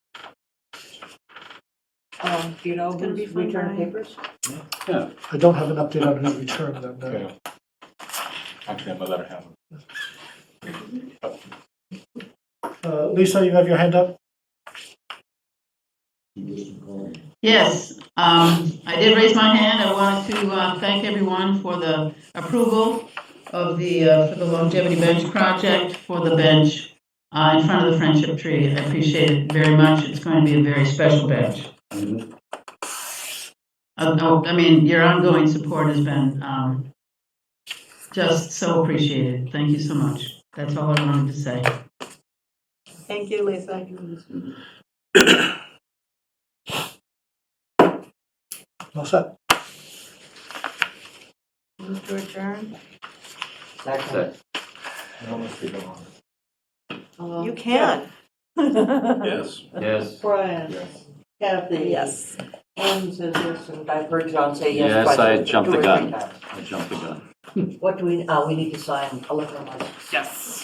Um, do you know gonna be who's fun returned buying. papers? I don't have an update on any return them, no. Okay. I'm gonna let her have it. Uh, Lisa, you have your hand up? Yes, um, I did raise my hand. I wanted to, uh, thank everyone for the approval of the, uh, for the longevity bench project for the bench, uh, in front of the friendship tree. I appreciate it very much. It's going to be a very special bench. Uh, no, I mean, your ongoing support has been, um, just so appreciated. Thank you so much. That's all I wanted to say. Thank you, Lisa. All set? Move to adjourn. Second. You can. Yes. Yes. Brian, Kathy. Yes. Anne says yes, and I've heard John say yes. Yes, twice, I jumped the two or three gun. times. I jumped the gun. What do we, uh, we need to sign a liquor license. Yes.